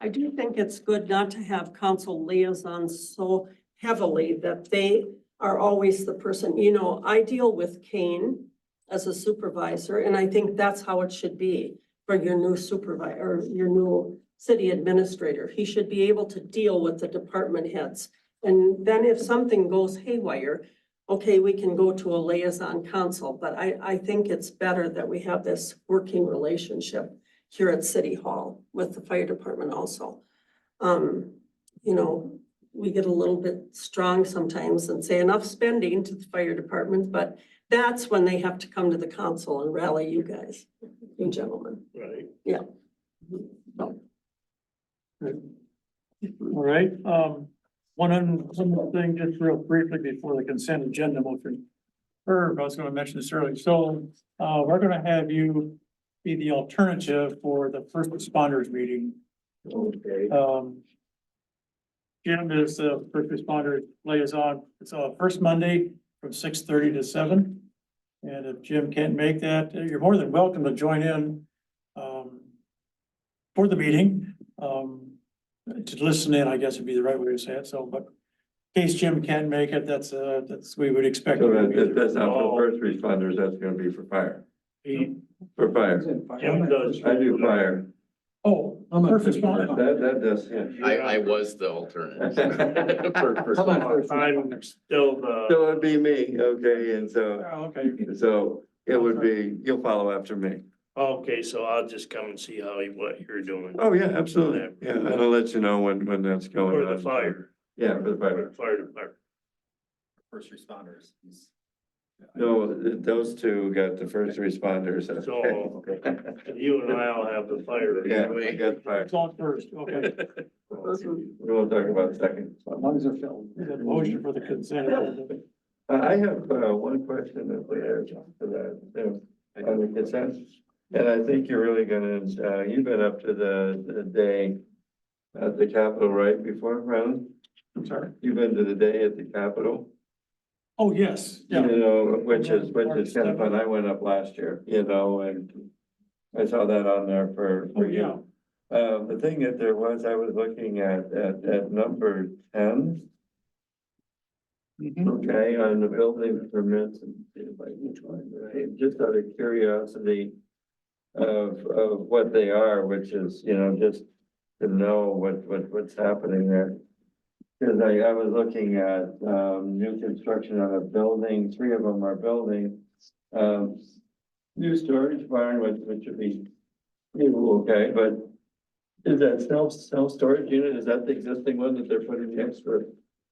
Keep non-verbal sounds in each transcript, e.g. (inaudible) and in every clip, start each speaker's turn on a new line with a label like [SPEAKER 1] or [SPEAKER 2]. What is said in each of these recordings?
[SPEAKER 1] I do think it's good not to have council liaisons so heavily that they are always the person, you know, I deal with Kane as a supervisor, and I think that's how it should be for your new supervisor, or your new city administrator. He should be able to deal with the department heads. And then if something goes haywire, okay, we can go to a liaison council, but I, I think it's better that we have this working relationship here at City Hall with the fire department also. Um, you know, we get a little bit strong sometimes and say enough spending to the fire department, but that's when they have to come to the council and rally you guys, you gentlemen.
[SPEAKER 2] Right.
[SPEAKER 1] Yeah.
[SPEAKER 2] Good. All right, um, one, un- one more thing, just real briefly before the consent agenda motion. Herb, I was gonna mention this earlier, so, uh, we're gonna have you be the alternative for the first responders meeting.
[SPEAKER 3] Okay.
[SPEAKER 2] Um. Jim is the first responder liaison. It's uh first Monday from six thirty to seven. And if Jim can't make that, uh, you're more than welcome to join in. Um. For the meeting, um, to listen in, I guess would be the right way to say it. So, but. in Case Jim can't make it, that's uh, that's, we would expect.
[SPEAKER 3] So that, that- that's not for first responders, that's gonna be for fire, for fire.
[SPEAKER 2] Jim does.
[SPEAKER 3] I do fire.
[SPEAKER 2] Oh, first responder.
[SPEAKER 3] That, that does,
[SPEAKER 4] I, I was the alternate.
[SPEAKER 3] (laughs)
[SPEAKER 4] For- for-
[SPEAKER 2] I'm still the.
[SPEAKER 3] so it'd be me, okay, and so,
[SPEAKER 2] Okay,
[SPEAKER 3] so it would be, you'll follow after me.
[SPEAKER 5] Okay, so I'll just come and see how, you- what you're doing
[SPEAKER 3] Oh, yeah, absolutely, yeah, and I'll let you know when, when that's going
[SPEAKER 5] for
[SPEAKER 3] on.
[SPEAKER 5] the fire,
[SPEAKER 3] Yeah, for
[SPEAKER 5] for
[SPEAKER 3] the fire,
[SPEAKER 5] the fire department.
[SPEAKER 4] First responders. is-
[SPEAKER 3] no, th- those two got the first responders. (laughs)
[SPEAKER 5] So you and I'll have the fire.
[SPEAKER 3] Yeah, we got the fire,
[SPEAKER 2] it's on first, okay.
[SPEAKER 1] Mm-hmm.
[SPEAKER 3] we won't talk about it second.
[SPEAKER 2] The motion for the consent. agenda.
[SPEAKER 3] Uh, I have, uh, one question that we have to that, uh, on the consensus. And I think you're really gonna, uh, you've been up to the, the day at the Capitol, right, before, Ron?
[SPEAKER 2] (laughs) I'm sorry.
[SPEAKER 3] You've been to the day at the Capitol?
[SPEAKER 2] Oh, yes,
[SPEAKER 3] You
[SPEAKER 2] yeah.
[SPEAKER 3] know, which is, which is kind of fun. I went up last year, you know, and I saw that on there for,
[SPEAKER 2] Oh,
[SPEAKER 3] for
[SPEAKER 2] yeah.
[SPEAKER 3] you. Uh, the thing that there was, I was looking at, at, at number ten.
[SPEAKER 2] Mm-hmm.
[SPEAKER 3] Okay, on the building permits and if I can find the name, just out of curiosity of, of what they are, which is, you know, just to know what, what, what's happening there. Cause I, I was looking at, um, new construction on a building, three of them are building, um, new storage barn, which, which would be, you know, okay, but is that self, self-storage unit, is that the existing one that they're putting the extra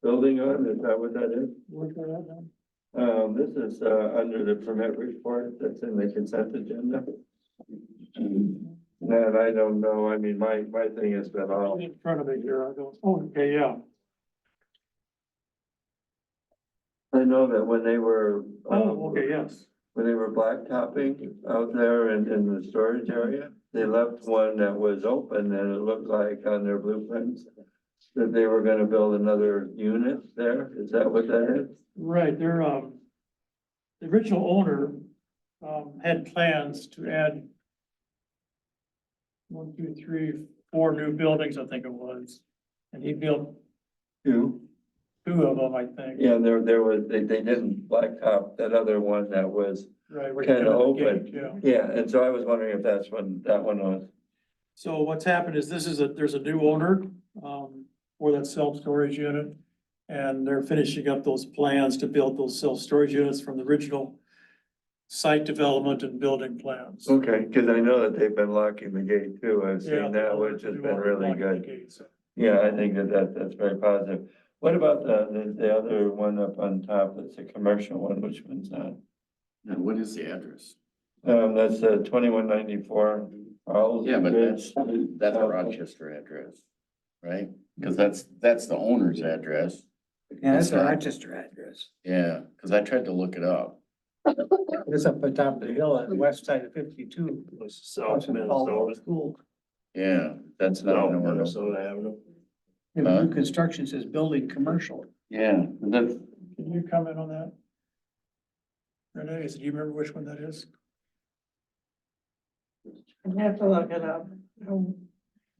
[SPEAKER 3] building on, is that what that is?
[SPEAKER 2] Where's that at now?
[SPEAKER 3] Um, this is, uh, under the permit report that's in the consent agenda. And I don't know, I mean, my, my thing has been all,
[SPEAKER 2] In front of me here, I go, oh, okay, yeah.
[SPEAKER 3] I know that when they were. um,
[SPEAKER 2] Oh, okay, yes.
[SPEAKER 3] When they were blacktopping out there in, in the storage area, they left one that was open and it looked like on their blueprints that they were gonna build another unit there, is that what that is?
[SPEAKER 2] Right, they're, um, the original owner, um, had plans to add one, two, three, four new buildings, I think it was. And he built
[SPEAKER 3] Two.
[SPEAKER 2] two of them, I think.
[SPEAKER 3] Yeah, there, there was, they, they didn't blacktop that other one that was,
[SPEAKER 2] Right. where you
[SPEAKER 3] Kinda
[SPEAKER 2] come in the
[SPEAKER 3] open.
[SPEAKER 2] gate, Yeah.
[SPEAKER 3] yeah, and so I was wondering if that's when that one was.
[SPEAKER 2] So what's happened is this is a, there's a new owner, um, for that self-storage unit. And they're finishing up those plans to build those self-storage units from the original site development and building plans.
[SPEAKER 3] Okay, cause I know that they've been locking the gate too, I've
[SPEAKER 2] Yeah,
[SPEAKER 3] seen that, which has been really good. Yeah, I think that that, that's very positive. What about the, the, the other one up on top, that's a commercial one, which one's that?
[SPEAKER 4] Now, what is the address?
[SPEAKER 3] Um, that's uh twenty-one ninety-four.
[SPEAKER 4] Yeah, but that's, that's
[SPEAKER 3] Oh.
[SPEAKER 4] a Rochester address, right? Because that's, that's the owner's address.
[SPEAKER 6] Yeah, that's a
[SPEAKER 4] Sorry.
[SPEAKER 6] Rochester address.
[SPEAKER 4] Yeah, because I tried to look it up.
[SPEAKER 6] It's up on top of the hill on the west side of fifty-two.
[SPEAKER 5] Was South Minnesota,
[SPEAKER 6] School.
[SPEAKER 4] Yeah, that's not.
[SPEAKER 5] South
[SPEAKER 4] an order.
[SPEAKER 5] Minnesota Avenue.
[SPEAKER 6] And
[SPEAKER 4] Huh?
[SPEAKER 6] new construction says building commercial.
[SPEAKER 4] Yeah, that's,
[SPEAKER 2] Can you comment on that? Renee, is- do you remember which one that is?
[SPEAKER 1] I have to look it up.